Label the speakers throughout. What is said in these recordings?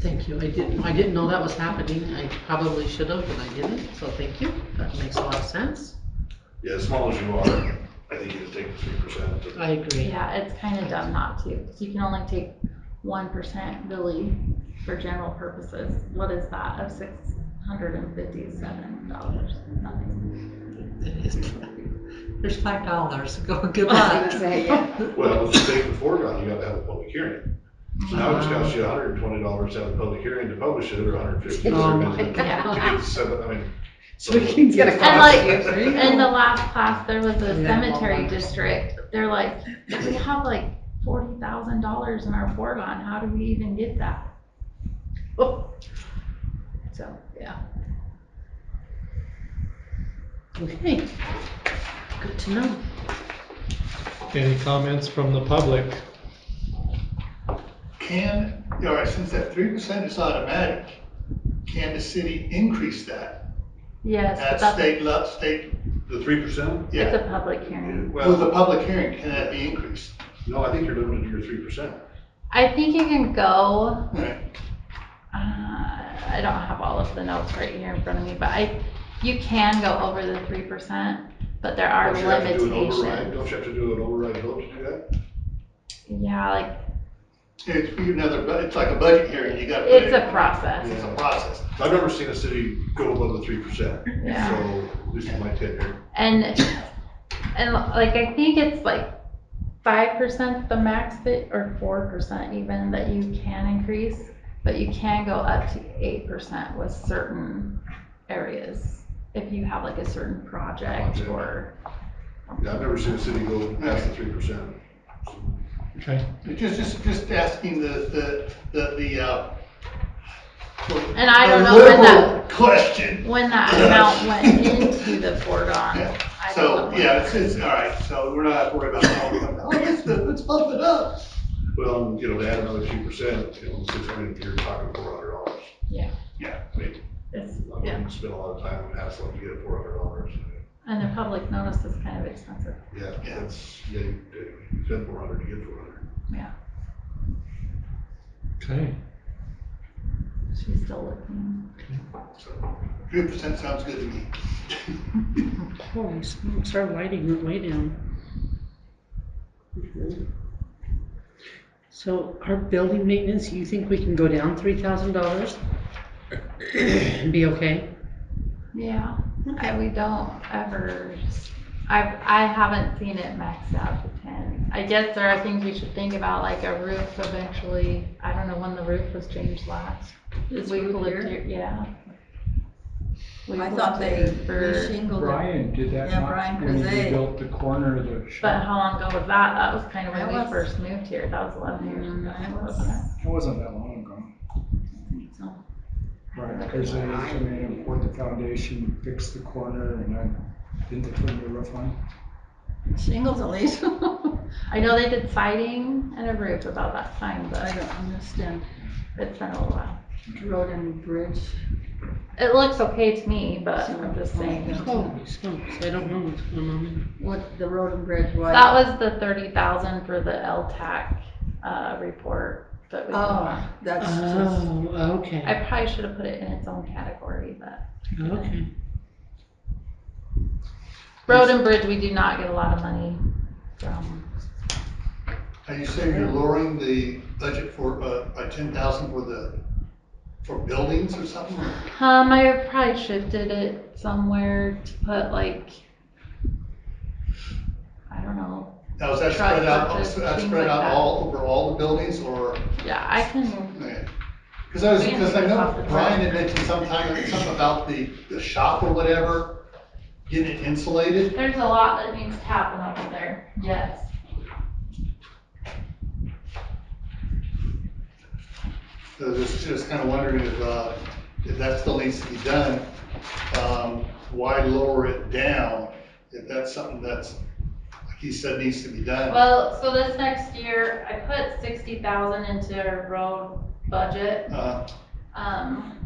Speaker 1: Thank you. I didn't, I didn't know that was happening. I probably should have, but I didn't, so thank you. That makes a lot of sense.
Speaker 2: Yeah, as small as you are, I think you just take the three percent.
Speaker 1: I agree.
Speaker 3: Yeah, it's kind of dumb not to, 'cause you can only take one percent really for general purposes. What is that of six hundred and fifty-seven dollars? Nothing.
Speaker 1: It is- There's five dollars. Go, good
Speaker 4: I
Speaker 1: luck.
Speaker 4: was gonna say, yeah.
Speaker 2: Well, if you take the foregone, you gotta have a public hearing. So now it's cost you hundred and twenty dollars to have a public hearing to publish it, or $150
Speaker 1: Oh
Speaker 2: or
Speaker 1: my
Speaker 2: fifty.
Speaker 3: God.
Speaker 2: Seven, I mean.
Speaker 4: Tweaking's gonna
Speaker 3: And
Speaker 4: cost
Speaker 3: like,
Speaker 4: you.
Speaker 3: in the last class, there was a
Speaker 1: Yeah.
Speaker 3: cemetery district, they're like, we have like forty thousand dollars in our foregone, how do we even get that? So, yeah.
Speaker 1: Okay. Good to know.
Speaker 5: Any comments from the public?
Speaker 6: Can, all right, since that three percent is automatic, can the city increase that
Speaker 3: Yes,
Speaker 6: at
Speaker 3: but that's,
Speaker 6: state level, state,
Speaker 2: The three percent?
Speaker 3: it's
Speaker 6: yeah,
Speaker 3: a public hearing.
Speaker 6: with a
Speaker 2: Well,
Speaker 6: public hearing, can that be increased?
Speaker 2: no, I think you're limited to your three percent.
Speaker 3: I think you can go
Speaker 6: All right,
Speaker 3: Uh, I don't have all of the notes right here in front of me, but I, you can go over the three percent, but there are
Speaker 2: Don't you have to do an override?
Speaker 3: limitations.
Speaker 2: Don't you have to do an override vote to do that?
Speaker 3: Yeah, like,
Speaker 6: it's be another, bu- it's like a budget hearing, you gotta. put
Speaker 3: it's
Speaker 6: it-
Speaker 3: a process,
Speaker 6: It's a process.
Speaker 2: I've never seen a city go above the three percent,
Speaker 3: yeah.
Speaker 2: so this is my tenure.
Speaker 3: And, and like, I think it's like five percent the max that, or four percent even, that you can increase, but you can go up to eight percent with certain areas, if you have like a certain project
Speaker 2: Project.
Speaker 3: or.
Speaker 2: Yeah, I've never seen a city go past the three percent.
Speaker 5: Okay,
Speaker 6: Just, just, just asking the, the, the, the, uh.
Speaker 3: And I don't
Speaker 6: the
Speaker 3: know when that-
Speaker 6: liberal Question.
Speaker 3: When that amount went into the foregone,
Speaker 6: Yeah.
Speaker 3: I
Speaker 6: So,
Speaker 3: don't know.
Speaker 6: yeah, it's, it's, all right, so we're not worried about, oh, let's, let's bump it up.
Speaker 2: Well, and, you know, to add another two percent, you know, six hundred, you're talking four hundred dollars.
Speaker 3: Yeah.
Speaker 2: Yeah, I mean,
Speaker 3: It's-
Speaker 2: I'm
Speaker 3: yeah.
Speaker 2: gonna spend a lot of time on hassling to get four hundred dollars.
Speaker 3: And a public notice is kind of expensive.
Speaker 2: Yeah,
Speaker 6: Yeah.
Speaker 2: that's, yeah, you you spend four hundred to get four hundred.
Speaker 5: okay.
Speaker 3: She's still looking.
Speaker 6: Three percent sounds good to me.
Speaker 7: Holy smokes, our lighting went way down. So our building maintenance, you think we can go down three thousand dollars? And be okay?
Speaker 3: Yeah, I, we don't ever, I've, I haven't seen it maxed out to ten. I guess there are things we should think about, like a roof eventually, I don't know when the roof was changed last.
Speaker 8: This
Speaker 3: We've
Speaker 8: roof
Speaker 3: lived
Speaker 8: here?
Speaker 3: Yeah. We've
Speaker 8: I thought
Speaker 3: lived
Speaker 8: they
Speaker 3: here for-
Speaker 8: reshingled it.
Speaker 9: Brian did that
Speaker 8: Yeah,
Speaker 9: not
Speaker 8: Brian
Speaker 9: when
Speaker 8: Crozet.
Speaker 9: he built the corner of the
Speaker 3: But
Speaker 9: shop.
Speaker 3: how long ago was that? That was kind of
Speaker 8: That
Speaker 3: when we
Speaker 8: was-
Speaker 3: first moved here. That was eleven years
Speaker 8: Mm,
Speaker 3: ago.
Speaker 8: it was-
Speaker 3: wasn't it?
Speaker 9: That wasn't that long ago.
Speaker 8: So,
Speaker 9: Brian Crozet came in and poured the foundation, fixed the corner, and then didn't they put a new roof on?
Speaker 8: Shingles at least. I
Speaker 3: I know they did siding and a roof about that time, but
Speaker 8: don't understand.
Speaker 3: it's been a little while.
Speaker 8: Road and bridge.
Speaker 3: It looks okay to me, but I'm just saying.
Speaker 7: Holy smokes, I don't know what's going on.
Speaker 8: What, the road and bridge was.
Speaker 3: That was the thirty thousand for the LTAC, uh, report that we got.
Speaker 8: Oh, that's just,
Speaker 7: Oh,
Speaker 3: I
Speaker 7: okay,
Speaker 3: probably should have put it in its own category, but
Speaker 7: okay.
Speaker 3: road and bridge, we do not get a lot of money from.
Speaker 6: Are you saying you're lowering the budget for, uh, by ten thousand for the, for buildings or something? or-
Speaker 3: Um, I probably shifted it somewhere to put like, I don't know.
Speaker 6: Now, is that
Speaker 3: Truck
Speaker 6: spread out,
Speaker 3: purchase,
Speaker 6: that's
Speaker 3: things
Speaker 6: spread
Speaker 3: like
Speaker 6: out
Speaker 3: that.
Speaker 6: all, over all the buildings or?
Speaker 3: Yeah, I can
Speaker 6: Because I was,
Speaker 3: We can
Speaker 6: because I
Speaker 3: take this off
Speaker 6: know
Speaker 3: the
Speaker 6: Brian
Speaker 3: top.
Speaker 6: had mentioned sometime, something about the, the shop or whatever, getting it insulated.
Speaker 3: There's a lot that needs to happen over there, yes.
Speaker 6: So just, just kind of wondering if, uh, if that still needs to be done, um, why lower it down? If that's something that's, like he said, needs to be done.
Speaker 3: Well, so this next year, I put sixty thousand into our road budget,
Speaker 6: Uh,
Speaker 3: um,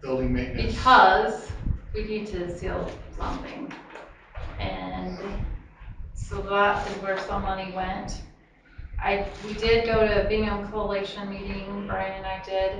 Speaker 6: building maintenance.
Speaker 3: because we need to seal something. And so that is where some money went. I, we did go to a bingham coalition meeting, Brian and I did,